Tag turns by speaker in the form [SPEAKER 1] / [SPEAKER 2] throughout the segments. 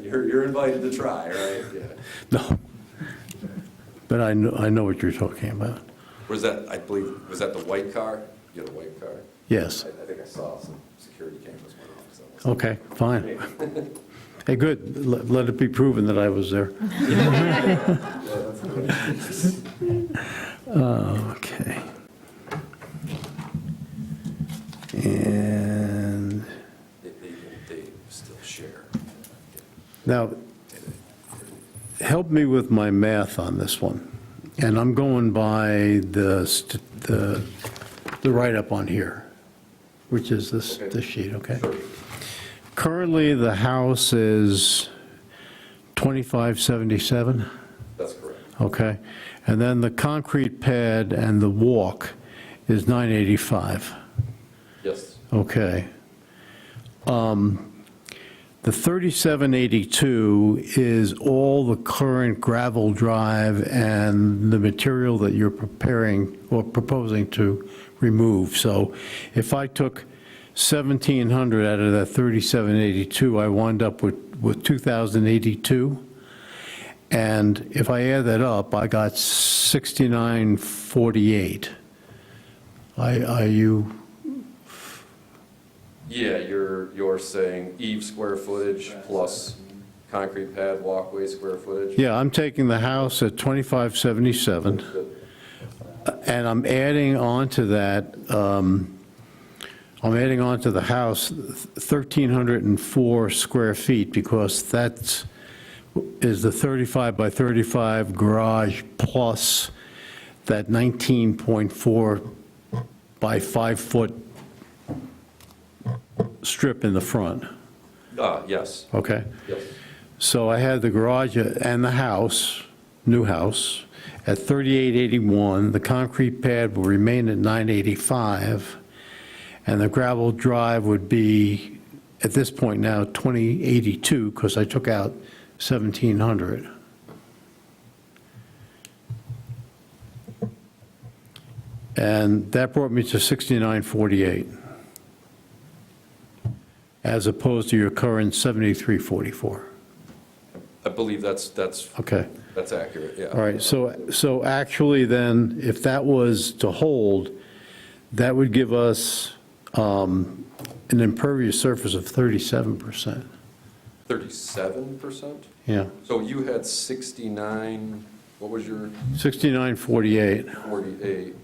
[SPEAKER 1] you're invited to try, right? Yeah.
[SPEAKER 2] No. But I know, I know what you're talking about.
[SPEAKER 1] Was that, I believe, was that the white car? You had a white car?
[SPEAKER 2] Yes.
[SPEAKER 1] I, I think I saw some security cameras went off. so I was-
[SPEAKER 2] Okay, fine. Hey, good. Let let it be proven that I was there. Okay. And
[SPEAKER 1] They, they, they still share.
[SPEAKER 2] now, help me with my math on this one. And I'm going by the, st- the the write-up on here, which is this,
[SPEAKER 1] Okay.
[SPEAKER 2] this sheet, okay?
[SPEAKER 1] Sure.
[SPEAKER 2] Currently, the house is 2577,
[SPEAKER 1] That's correct.
[SPEAKER 2] okay? And then the concrete pad and the walk is 985,
[SPEAKER 1] Yes.
[SPEAKER 2] okay? Um, The 3782 is all the current gravel drive and the material that you're preparing or proposing to remove. So if I took 1,700 out of that 3782, I wind up with, with 2,082. And if I add that up, I got 6948. I, are you,
[SPEAKER 1] Yeah, you're, you're saying eve square footage plus concrete pad walkway square footage?
[SPEAKER 2] yeah, I'm taking the house at 2577, and I'm adding on to that, um, I'm adding on to the house 1,304 square feet, because that's, is the 35 by 35 garage plus that 19.4 by 5-foot strip in the front,
[SPEAKER 1] Ah, yes,
[SPEAKER 2] okay?
[SPEAKER 1] yes,
[SPEAKER 2] So I had the garage and the house, new house, at 3881. The concrete pad will remain at 985. And the gravel drive would be, at this point now, 2082, because I took out 1700. And that brought me to 6948, as opposed to your current 7344.
[SPEAKER 1] I believe that's, that's,
[SPEAKER 2] Okay,
[SPEAKER 1] that's accurate, yeah.
[SPEAKER 2] all right, so, so actually then, if that was to hold, that would give us um, an impervious surface of 37%.
[SPEAKER 1] Thirty-seven percent?
[SPEAKER 2] Yeah,
[SPEAKER 1] So you had sixty-nine, what was your
[SPEAKER 2] 6948,
[SPEAKER 1] forty-eight?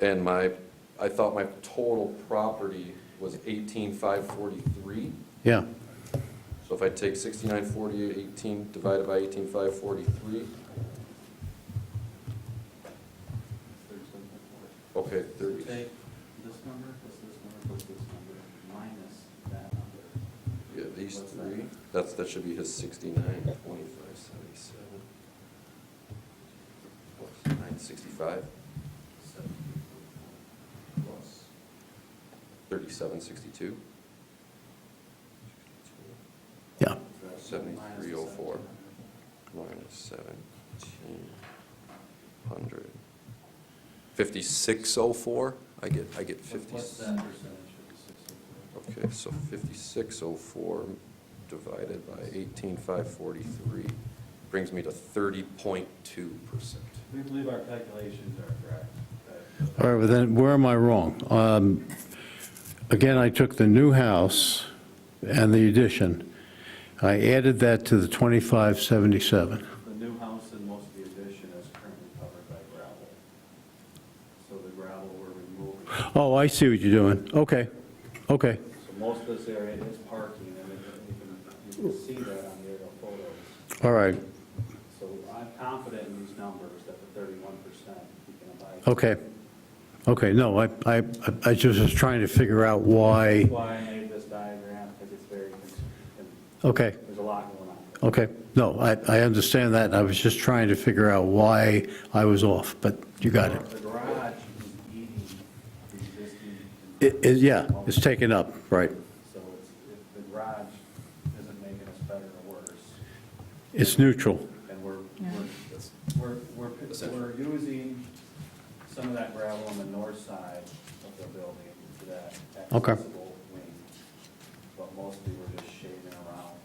[SPEAKER 1] And my, I thought my total property was eighteen-five forty-three?
[SPEAKER 2] yeah,
[SPEAKER 1] So if I take sixty-nine forty-eight, eighteen, divided by eighteen-five forty-three? Okay, thirty.
[SPEAKER 3] Take this number, plus this number, plus this number, minus that number.
[SPEAKER 1] Yeah, these three, that's, that should be his sixty-nine, twenty-five, seventy-seven. Plus nine sixty-five,
[SPEAKER 3] Seventy plus
[SPEAKER 1] thirty-seven, sixty-two,
[SPEAKER 2] yeah,
[SPEAKER 1] Seventy-three oh four. minus seventeen hundred. Fifty-six oh four, I get, I get fifty.
[SPEAKER 3] What's that percentage of the oh sixty?
[SPEAKER 1] Okay, so fifty-six oh four divided by eighteen-five forty-three brings me to thirty point two percent.
[SPEAKER 3] We believe our calculations are correct.
[SPEAKER 2] all right, but then where am I wrong? Um, Again, I took the new house and the addition, I added that to the 2577.
[SPEAKER 3] The new house and most of the addition is currently covered by gravel. So the gravel we're removing,
[SPEAKER 2] Oh, I see what you're doing, okay, okay,
[SPEAKER 3] so most of this area is parking, and you can, you can see that on the aerial photos.
[SPEAKER 2] all right,
[SPEAKER 3] So I'm confident in these numbers that the thirty-one percent we can abide.
[SPEAKER 2] Okay, okay, no, I, I, I just was trying to figure out why,
[SPEAKER 3] That's why I made this diagram, because it's very, cons- and
[SPEAKER 2] okay,
[SPEAKER 3] there's a lot going on.
[SPEAKER 2] okay, no, I, I understand that, I was just trying to figure out why I was off, but you got it.
[SPEAKER 3] The garage is eating the existing,
[SPEAKER 2] It, it- yeah, it's taken up, right,
[SPEAKER 3] so it's, it- the garage isn't making us better or worse,
[SPEAKER 2] it's neutral,
[SPEAKER 3] and we're,
[SPEAKER 4] Yeah.
[SPEAKER 3] we're, we're, we're, we're using some of that gravel on the north side of the building for that
[SPEAKER 2] Okay.
[SPEAKER 3] accessible wing, but mostly we're just shaving around